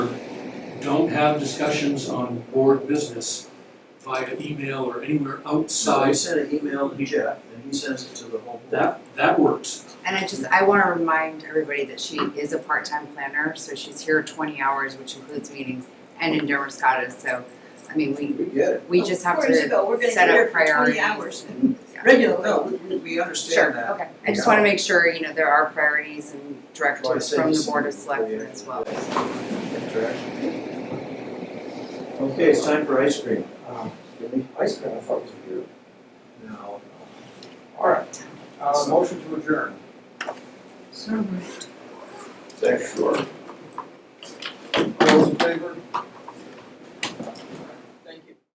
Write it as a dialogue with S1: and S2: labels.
S1: have discussions on board business via email or anywhere
S2: So I
S1: outside,
S2: sent an email to Jeff, and he sends it to the whole board.
S1: that, that works.
S3: And I just, I wanna remind everybody that she is a part-time planner, so she's here twenty hours, which includes meetings and in Dermiscata, so, I mean, we,
S2: We get it.
S3: we just have
S4: Four years
S3: to,
S4: ago, we're gonna be
S3: set up
S4: here for twenty
S3: priorities.
S4: hours
S3: Yeah.
S4: regularly.
S2: No, we- we, we understand
S3: sure,
S2: that.
S3: okay. I just wanna make sure, you know, there are priorities and
S2: Well, I
S3: directives
S2: said
S3: from
S2: you
S3: the Board of
S2: sent it to
S3: Selectmen as well.
S2: the- Interaction. Okay, it's time for ice cream.
S5: Um, Really? Ice cream, I thought it was weird.
S2: No.
S5: All right, uh, motion to adjourn.
S3: So
S5: Sure. All those in favor?